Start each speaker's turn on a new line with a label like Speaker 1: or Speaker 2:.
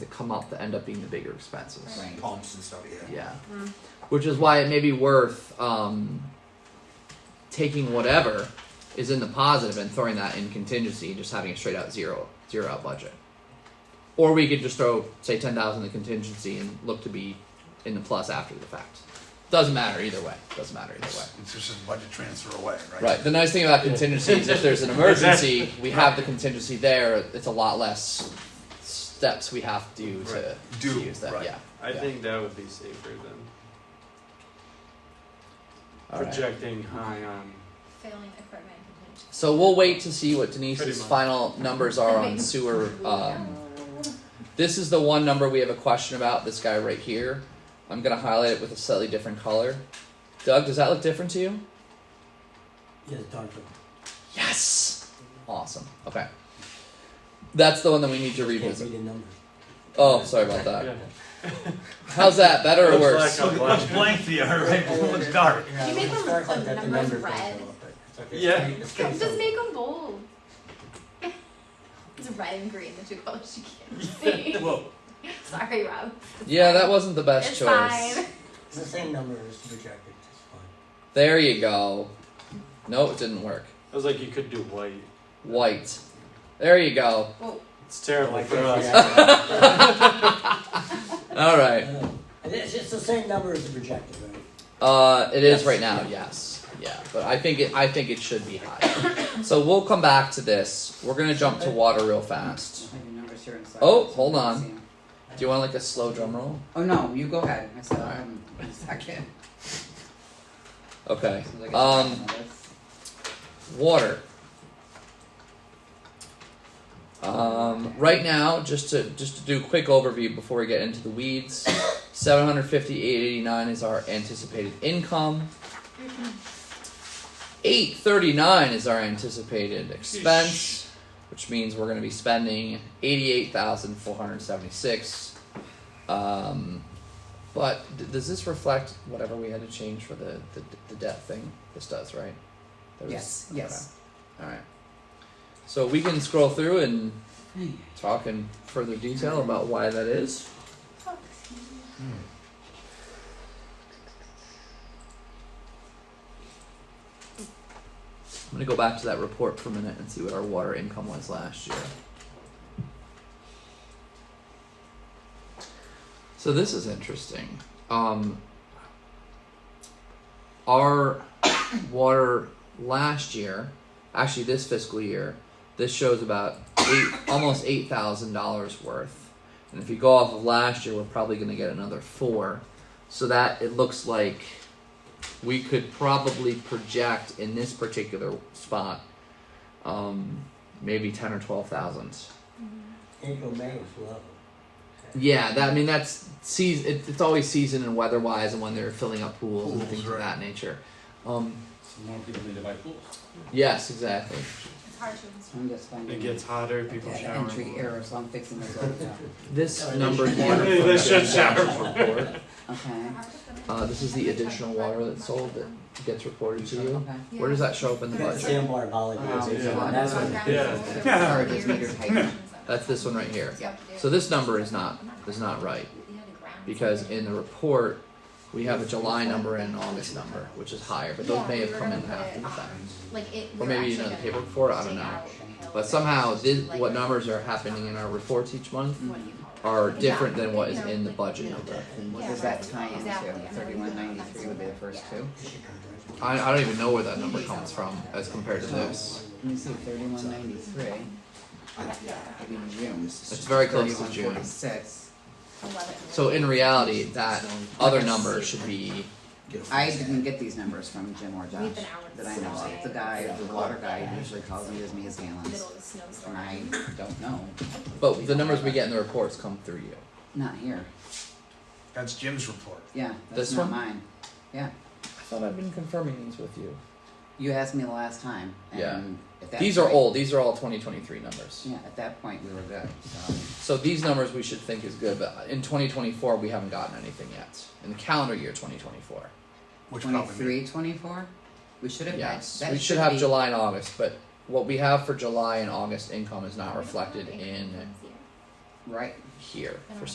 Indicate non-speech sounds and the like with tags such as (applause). Speaker 1: come up that end up being the bigger expenses.
Speaker 2: Right.
Speaker 3: pumps and stuff. Yeah.
Speaker 1: Yeah.
Speaker 2: Mm.
Speaker 1: Which is why it may be worth um, taking whatever is in the positive and throwing that in contingency and just having a straight out zero zero out budget. Or we could just throw say ten thousand in the contingency and look to be in the plus after the fact. Doesn't matter either way. Doesn't matter either way.
Speaker 3: It's, it's just a budget transfer away, right?
Speaker 1: Right. The nice thing about contingency is if
Speaker 3: (laughs)
Speaker 1: there's an emergency, we have the contingency there. It's a lot less steps we have to do to,
Speaker 3: Right. Do,
Speaker 1: to use that.
Speaker 3: right.
Speaker 1: Yeah.
Speaker 4: I
Speaker 1: Yeah.
Speaker 4: think that would be safer than
Speaker 1: All right.
Speaker 4: projecting high on.
Speaker 2: Failing equipment contingency.
Speaker 1: So we'll wait to see what Denise's
Speaker 4: Pretty much.
Speaker 1: final numbers are on sewer. Um, this is the one number we have a question about. This guy right here. I'm gonna highlight it with a slightly different color. Doug, does that look different to you?
Speaker 5: Yeah, darker.
Speaker 1: Yes. Awesome. Okay. That's the one that we need to
Speaker 5: Can't
Speaker 1: revisit.
Speaker 5: read the numbers.
Speaker 1: Oh, sorry about
Speaker 4: Yeah.
Speaker 1: that. How's that? Better or
Speaker 4: Looks
Speaker 1: worse?
Speaker 4: like a
Speaker 6: Looks
Speaker 4: budget.
Speaker 6: blank to you, (laughs) right? It looks dark.
Speaker 5: Yeah,
Speaker 2: You make
Speaker 5: when
Speaker 2: them
Speaker 5: it starts
Speaker 2: look
Speaker 5: like that,
Speaker 2: like
Speaker 5: the
Speaker 2: numbers
Speaker 5: numbers don't
Speaker 2: red.
Speaker 5: come up, but it's
Speaker 4: Yeah.
Speaker 5: pretty- it's pretty
Speaker 2: Just
Speaker 5: simple.
Speaker 2: make them bold. It's red and green, the two colors you can't see.
Speaker 6: Whoa.
Speaker 2: (laughs) Sorry, Rob.
Speaker 1: Yeah, that wasn't the best
Speaker 2: It's
Speaker 1: choice.
Speaker 2: fine.
Speaker 5: It's the same number as projected, it's fine.
Speaker 1: There you go. No, it didn't work.
Speaker 4: I was like, you could do white.
Speaker 1: White. There you go.
Speaker 2: Well,
Speaker 4: It's terrible
Speaker 5: Like
Speaker 4: for
Speaker 5: that,
Speaker 4: us.
Speaker 5: yeah.
Speaker 1: All (laughs) right.
Speaker 5: Uh, and It's it's the same number as the projected, right?
Speaker 1: Uh, it is
Speaker 5: Yes.
Speaker 1: right now. Yes. Yeah. But I think it. I think it should be high. so we'll come back to this. We're gonna jump to water real fast.
Speaker 7: I have your numbers here inside.
Speaker 1: Oh,
Speaker 7: so
Speaker 1: hold
Speaker 7: I can
Speaker 1: on.
Speaker 7: see 'em.
Speaker 1: Do you want like a slow drum roll?
Speaker 7: Oh no, you go ahead. I said
Speaker 1: Alright.
Speaker 7: um, one second.
Speaker 1: Okay.
Speaker 7: As soon as I get
Speaker 1: Um,
Speaker 7: to this.
Speaker 1: water. Um, right now, just to just to do a quick overview before we get into the weeds, (coughs) seven hundred fifty eight eighty nine is our anticipated income. Eight thirty nine is our anticipated expense, which means we're going to be spending eighty eight thousand four hundred seventy six. Um, but d- does this reflect whatever we had to change for the the, the debt thing? This does, right? There was-
Speaker 7: yes,
Speaker 1: okay.
Speaker 7: yes.
Speaker 1: All right. So we can scroll through and talk in further detail about why that is.
Speaker 2: fuck.
Speaker 1: I'm gonna go back to that report for a minute and see what our water income was last year. So this is interesting. Um, our water last year, actually this fiscal year, this shows about eight, almost eight thousand dollars worth. And if you go off of last year, we're probably going to get another four. So that it looks like we could probably project in this particular spot, um, maybe ten or twelve thousand.
Speaker 5: April, May is low. (laughs)
Speaker 1: Yeah, that I mean that's season. It, it's always season and weather wise, and when they're filling up pools, and
Speaker 3: Pools,
Speaker 1: things of
Speaker 3: right.
Speaker 1: that nature. Um,
Speaker 6: So more people need to buy pools.
Speaker 1: yes, exactly.
Speaker 2: It's hard to.
Speaker 1: Mm-hmm.
Speaker 7: So I'm just finding
Speaker 4: It gets hotter, people
Speaker 7: that
Speaker 4: shower.
Speaker 7: entry
Speaker 4: more.
Speaker 7: error, so I'm fixing this right now.
Speaker 1: (laughs) This
Speaker 5: Oh,
Speaker 1: number
Speaker 5: they should-
Speaker 1: here.
Speaker 4: Hey, they should
Speaker 1: report.
Speaker 7: Okay.
Speaker 2: hard to-
Speaker 1: Uh, this is the additional water that's sold that gets reported to you.
Speaker 7: Okay.
Speaker 1: Where does that show up in the
Speaker 5: It's
Speaker 1: budget?
Speaker 5: the same water holiday.
Speaker 7: Wow.
Speaker 5: it's-
Speaker 4: Yeah.
Speaker 5: that's what-
Speaker 4: Yeah.
Speaker 7: Yeah. Sorry, there's
Speaker 1: (laughs)
Speaker 7: meter height.
Speaker 1: That's this one right here. So this number is not is not right because in the report we have a July number and an August number, which is higher, but those may have come in after the fact.
Speaker 2: Like it,
Speaker 1: Or maybe you know the paperwork for it, I don't know. But somehow this, what numbers are happening in our reports each month are different than what is in the budget number.
Speaker 7: And what
Speaker 2: Yeah,
Speaker 7: does that
Speaker 2: right,
Speaker 7: tie into?
Speaker 2: exactly.
Speaker 7: Thirty-one ninety-three would be the first two.
Speaker 1: I, I don't even know where that number comes from as compared to this.
Speaker 7: Let me see, thirty-one ninety-three. It'd be June.
Speaker 1: It's very close to June.
Speaker 7: 3146.
Speaker 1: So in reality, that other number should be
Speaker 7: I didn't get these numbers from Jim or Josh
Speaker 2: We've been out
Speaker 7: that I know of. The guy, the water guy, usually calls and gives me his gallons, and I don't know.
Speaker 1: but the numbers we get in the reports come through you.
Speaker 7: Not here.
Speaker 3: That's Jim's report.
Speaker 7: Yeah,
Speaker 1: This
Speaker 7: that's
Speaker 1: one?
Speaker 7: not mine. Yeah,
Speaker 1: I thought I've been confirming these with you.
Speaker 7: you asked me the last time.
Speaker 1: Yeah.
Speaker 7: and at that
Speaker 1: These are
Speaker 7: point-
Speaker 1: old, these are all twenty twenty three numbers.
Speaker 7: Yeah, at that point we were good. So
Speaker 1: So these numbers we should think is good, but in 2024 we haven't gotten anything yet in the calendar year 2024.
Speaker 3: Which probably means-
Speaker 7: twenty-three, twenty-four. We should have. had-
Speaker 1: Yes,
Speaker 7: that
Speaker 1: we should have
Speaker 7: be-
Speaker 1: July and August, but what we have for July and August income is not reflected in
Speaker 7: Right.
Speaker 1: here for